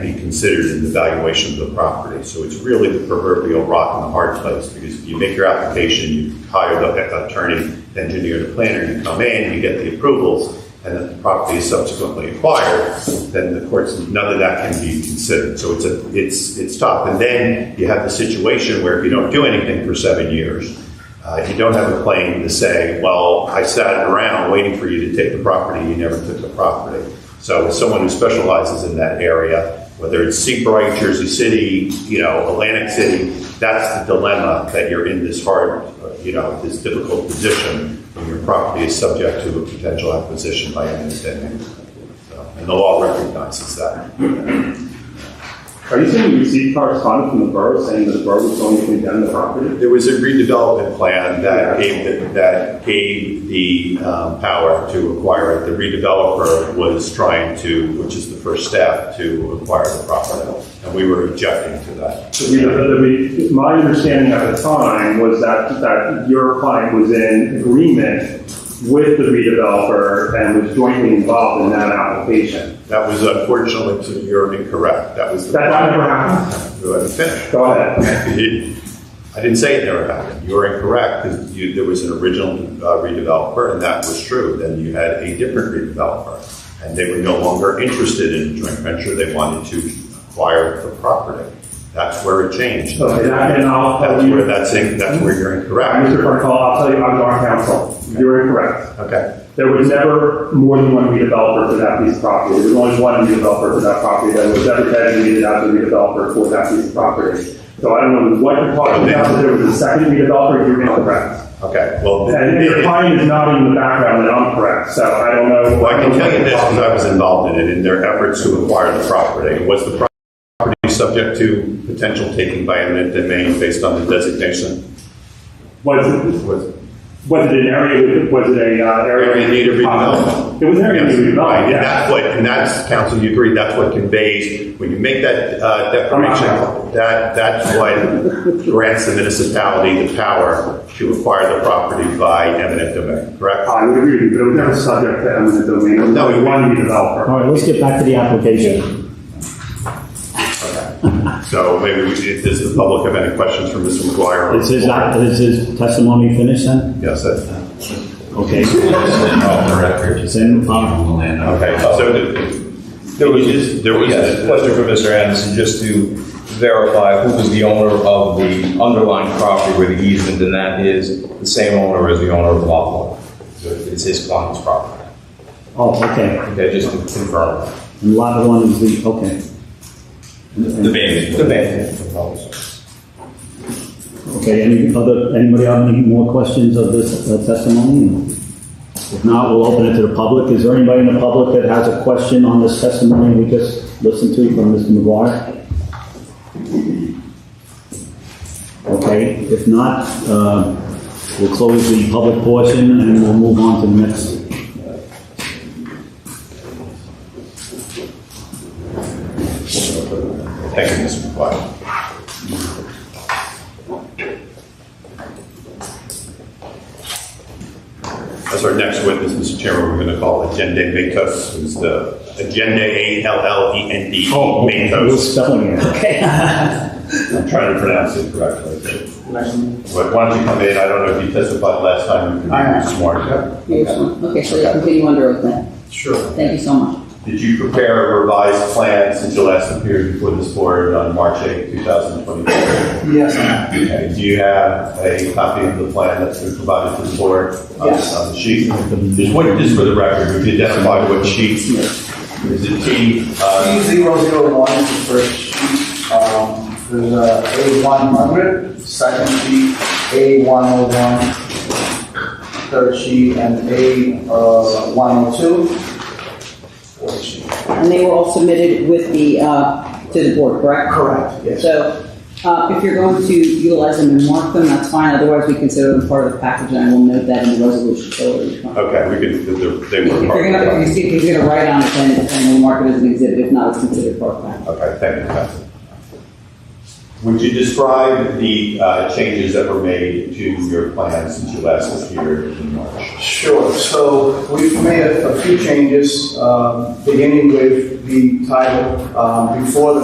be considered in the valuation of the property. So it's really the proverbial rock in the hard place, because if you make your application, you hire the attorney, engineer, the planner, you come in, you get the approvals, and then the property is subsequently acquired, then the courts, none of that can be considered. So it's a, it's, it's tough. And then you have the situation where if you don't do anything for seven years, uh, you don't have a claim to say, well, I sat around waiting for you to take the property, you never took the property. So as someone who specializes in that area, whether it's Seabright, Jersey City, you know, Atlantic City, that's the dilemma that you're in this hard, uh, you know, this difficult position when your property is subject to a potential acquisition by any tenant. So, And the law recognizes that. Are you saying you received correspondence from the borough saying that the borough was going to condemn the property? There was a redevelopment plan that gave, the- that gave the um, power to acquire it. The redeveloper was trying to, which is the first step, to acquire the property. And we were objecting to that. So we- uh, we- My understanding at the time was that, that your client was in agreement with the redeveloper and was jointly involved in that application. That was unfortunately, so you're incorrect. That was. the- That that never happened. Let me finish. Go ahead. I didn't say it never happened. You are incorrect, 'cause you, there was an original uh, redeveloper, and that was true. Then you had a different redeveloper, and they were no longer interested in joint venture. They wanted to acquire the property. That's where it changed. Okay, that- and I'll That's tell you, where, Mr. that's, in- that's where you're incorrect. Carnicol, I'll tell you, I'm on council. You're incorrect. Okay, There was never more than one redeveloper for that piece of property. There was only one redeveloper for that property that was ever designated as a redeveloper for that piece of property. So I don't know what you're talking about, but there was a second redeveloper, you're incorrect. okay, well. th- And your th- client is nodding in the background that I'm correct, so I don't know. Well, I can tell you this, uh, because I was involved in it, in their efforts to acquire the property. Was the property subject to potential taking by eminent domain based on the designation? Was it, Was, was it an area, was it a uh, area? Area in need of redevelopment. It was an area in need of Right, redevelopment, and yeah. that's what, and that's, council, you agree, that's what conveys, when you make that uh, I'm not declaration, that, that's what grants the municipality the power to acquire the property by eminent domain, correct? I would agree with you, but it was never subject to eminent domain. It was No, only it- one redeveloper. All right, let's get back to the application. So maybe, we should- does the public have any questions for Mr. McGuire? Is his, is his testimony finished then? Yes, that's, Okay. On the record, it's in the land. okay, so the- there was, there was. Yes, question for Mr. Anderson, just to verify, who was the owner of the underlying property where the easement, and that is the same owner as the owner of the lot one? So It's his client's property. Oh, okay. Okay, just to confirm. And lot one is the, okay. The baby. The man. Okay, any other, anybody have any more questions of this uh, testimony? If not, we'll open it to the public. Is there anybody in the public that has a question on this testimony we just listened to from Mr. McGuire? Okay, if not, uh, we'll close the public portion and we'll move on to the next. Thank you, Mr. McGuire. As our next witness, Mr. Chairman, we're going to call Agenda Matos, who's the Agenda A-L-L-E-N-D Oh, We're E Matos. spelling it. I'm trying to pronounce it correctly. But why don't you come in? I don't know if you testified last time. All right. You could be smart. Yeah, just one. Okay, so we'll continue under oath then. Sure. Thank you so much. Did you prepare a revised plan since you last appeared before this board on March 8, 2024? Yes, I Okay, do you have a copy of the plan that's been provided to the board on Yes. on the sheet? Just what, just for the record, if you identify what sheet, is it T, uh, P zero zero one is the first sheet, um, there's a A one hundred, second sheet, A one oh one, third sheet, and A, uh, one oh two, fourth sheet. And they were all submitted with the, uh, to the board, correct? Correct, yes. So, uh, if you're going to utilize them and mark them, that's fine, otherwise we consider them part of the package, and I will note that in the resolution. So it's fine. okay, we could, they If were. you're gonna, if you see, if you're gonna write on it, then, then we'll mark it as an exhibit, if not, it's considered part of the package. Okay, thank you, Council. Would you describe the uh, changes that were made to your plan since you last appeared in March? Sure, so we've made a a few changes, um, beginning with the title. Um, Before the